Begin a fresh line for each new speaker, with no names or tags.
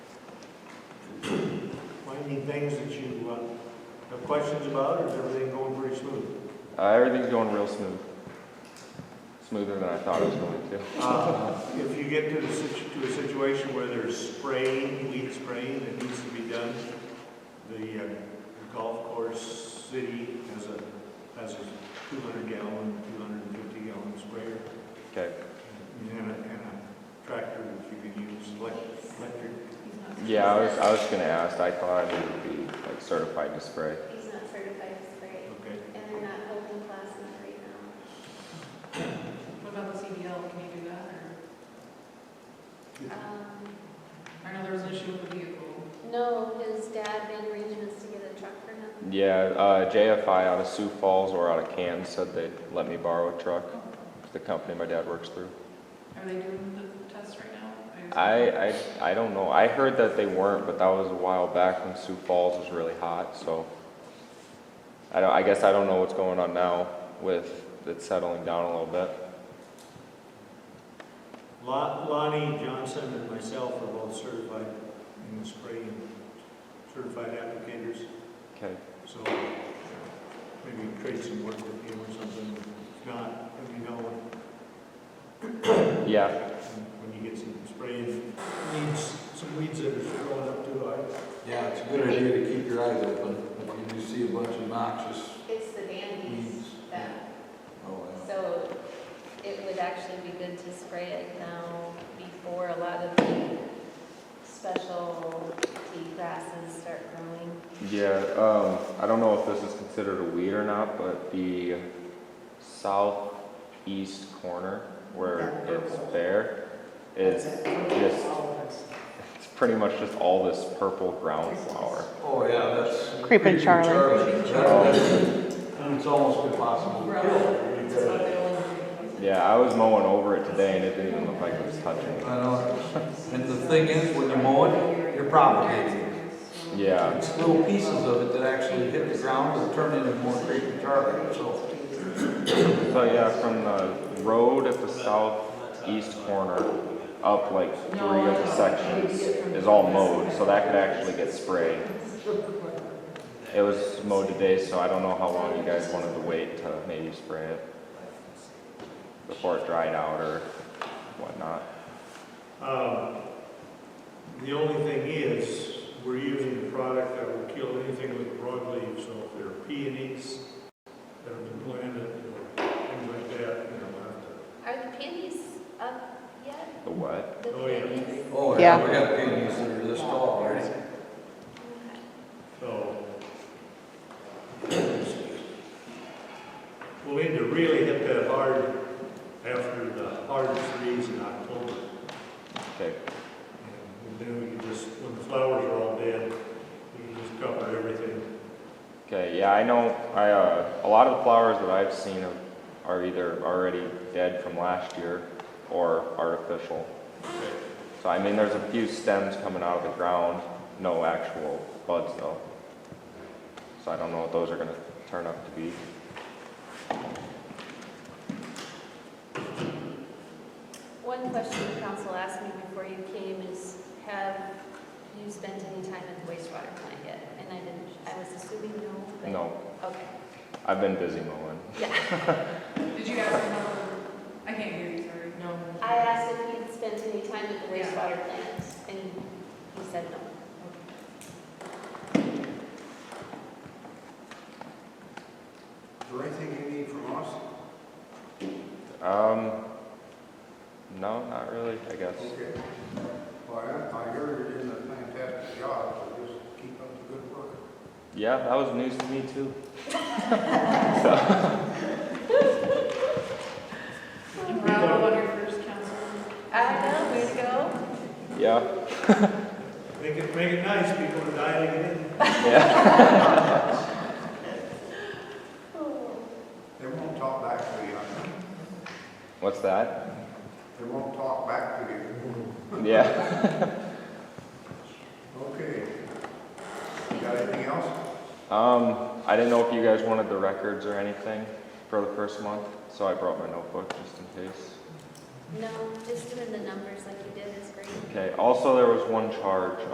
Any things that you uh, have questions about, or is everything going pretty smooth?
Uh, everything's going real smooth. Smoother than I thought it was going to.
Uh, If you get to the, situ- to a situation where there's spraying, weed spraying that needs to be done, the uh, golf course city has a, has a two hundred gallon, two hundred and fifty gallon sprayer.
Okay.
And a, and a tractor that you can use, elec- electric.
Yeah, I was, I was gonna ask. I thought it would be like certified to spray.
He's not certified to spray,
Okay.
and they're not holding classes right now.
What about the CBL, can you do that, or,
Um,
I know there was an issue with the vehicle.
No, his dad made arrangements to get a truck for him.
Yeah, uh, JFI out of Sioux Falls or out of Canton said they'd let me borrow a truck. It's the company my dad works through.
Are they doing the test right now?
I, I, I don't know. I heard that they weren't, but that was a while back when Sioux Falls was really hot, so. I don't, I guess I don't know what's going on now with it settling down a little bit.
Lon- Lonnie Johnson and myself are both certified in the spraying, certified applicators.
Okay.
So maybe trade some work with him or something. If not, let me know when-
Yeah,
when you get some spray and weeds, some weeds that are growing up too high.
Yeah, it's a good idea to keep your eyes open if you do see a bunch of noxious
It's the dandies
weeds.
that,
Oh, yeah.
so it would actually be good to spray it now before a lot of the special tea grasses start growing.
yeah, um, I don't know if this is considered a weed or not, but the southeast corner where it's bare is just, it's pretty much just all this purple ground flower.
Oh, yeah, that's.
Creeping Charlie.
That- that's- And it's almost impossible to
It's
kill. You've
about
got-
the only-
Yeah, I was mowing over it today and it didn't even look like it was touching it.
I know. And the thing is, when you mow it, you're propagating it.
Yeah,
It's little pieces of it that actually hit the ground or turn into more creeping Charlie, so.
so yeah, from the road at the southeast corner up like three of the sections is all mowed, so that could actually get sprayed. It was mowed today, so I don't know how long you guys wanted to wait to maybe spray it before it dried out or whatnot.
Um, The only thing is, we're using a product that will kill anything with broadleaf, so if there are peonies that have been planted, or things like that, you know, we'll have to
Are the peonies up yet?
The what?
The
Oh, yeah.
peonies?
Oh, yeah,
Yeah.
we got pygmies that are this tall, right?
Okay.
So. We'll need to really hit that hard after the hard freeze in October.
Okay,
And then we can just, when the flowers are all dead, we can just cover everything.
okay, yeah, I know, I, uh, a lot of the flowers that I've seen are- are either already dead from last year or artificial. So I mean, there's a few stems coming out of the ground, no actual buds though. So I don't know what those are gonna turn up to be.
One question the council asked me before you came is, have you spent any time at the wastewater plant yet? And I didn't, I was assuming no, but.
No,
Okay,
I've been busy mowing.
Did you guys remember, I can't hear you, sorry. No.
I asked if you'd spent any time at the
Yeah.
wastewater plant, and he said no.
Is there anything you need from us?
Um, no, not really, I guess.
Okay. Well, I I heard you're doing a fantastic job, so just keep up the good work.
Yeah, that was news to me too.
And Rob, what your first council?
I know, way to go.
Yeah,
Make it, make it nice, people are dialing in.
yeah,
They won't talk back to you, I know.
what's that?
They won't talk back to you.
Yeah,
Okay. You got anything else?
um, I didn't know if you guys wanted the records or anything for the first month, so I brought my notebook just in case.
No, just doing the numbers like you did is great.
Okay, also there was one charge